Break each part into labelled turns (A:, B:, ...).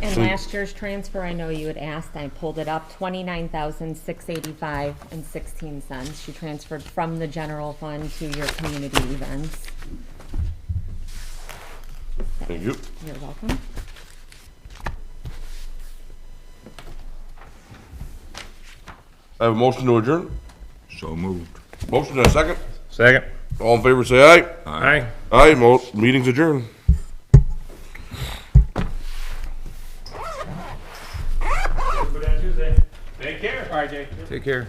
A: And
B: So-
A: last year's transfer, I know you had asked, I pulled it up, twenty-nine thousand, six eighty-five and sixteen cents. She transferred from the general fund to your community events.
B: Thank you.
A: You're welcome.
B: I have a motion to adjourn.
C: So moved.
B: Motion and a second.
D: Second.
B: All in favor, say aye.
D: Aye.
B: Aye, mo- meeting's adjourned.
D: Take care. All right, Jake.
C: Take care.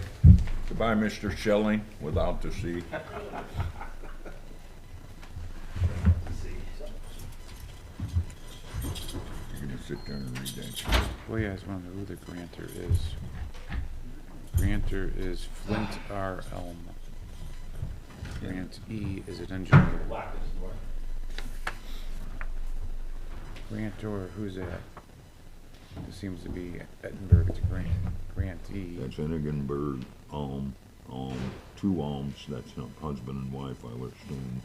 C: Goodbye, Mr. Schilling, without the C. You're gonna sit there and read that shit.
E: Well, you guys wonder who the grantor is. Grantor is Flint R. Elm. Grant E. is an engineer. Grantor, who's that? It seems to be Edinburgh, it's Grant, E. grantee.
C: That's Enigenberg, Alm, Alm, two Alms, that's not husband and wife, I would assume,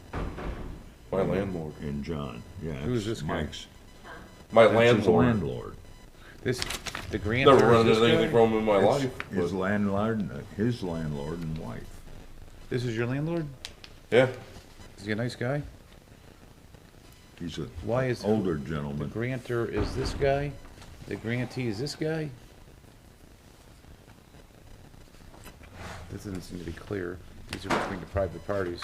B: My landlord.
C: and John, yeah.
E: Who's
C: that's
E: this guy?
C: Mike's-
B: My
C: That's his
B: landlord.
C: landlord.
E: This, the
B: Never
E: grantor
B: run
E: is
B: into
E: this
B: anything
E: guy?
B: from him in my
C: It's
B: life.
C: His
B: but-
C: landlord, and, uh, his landlord and wife.
E: This is your landlord?
B: Yeah,
E: Is he a nice guy?
C: He's a
E: Why is the
C: older gentleman.
E: grantor is this guy? The grantee is this guy? This doesn't seem to be clear. These are between the private parties.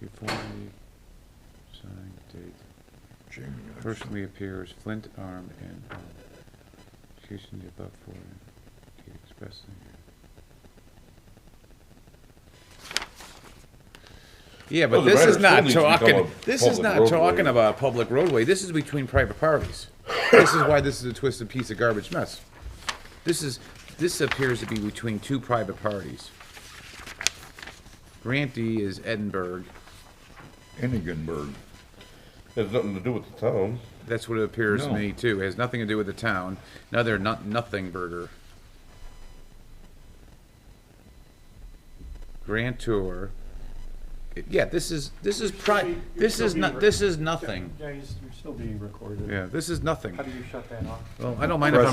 E: Before we sign date
C: Jamie, I-
E: personally appears Flint armed and armed. accusing the above for he expressly. Yeah, but
B: Well, the
E: this is
B: Ryder
E: not
B: still needs to become
E: talking,
B: a
E: this is
B: public
E: not
B: roadway.
E: talking about a public roadway, this is between private parties. This is why this is a twisted piece of garbage mess. This is, this appears to be between two private parties. Grantee is Edinburgh,
C: Enigenberg.
B: it has nothing to do with the town.
E: That's what it appears to
C: No.
E: me too. It has nothing to do with the town. Another not nothing burger. Grand Tour. Yeah, this is this is pri- this is not this is nothing.
F: Yeah, you're you're still being recorded.
E: Yeah, this is nothing.
F: How do you shut that off?
E: Well, I don't mind if I'm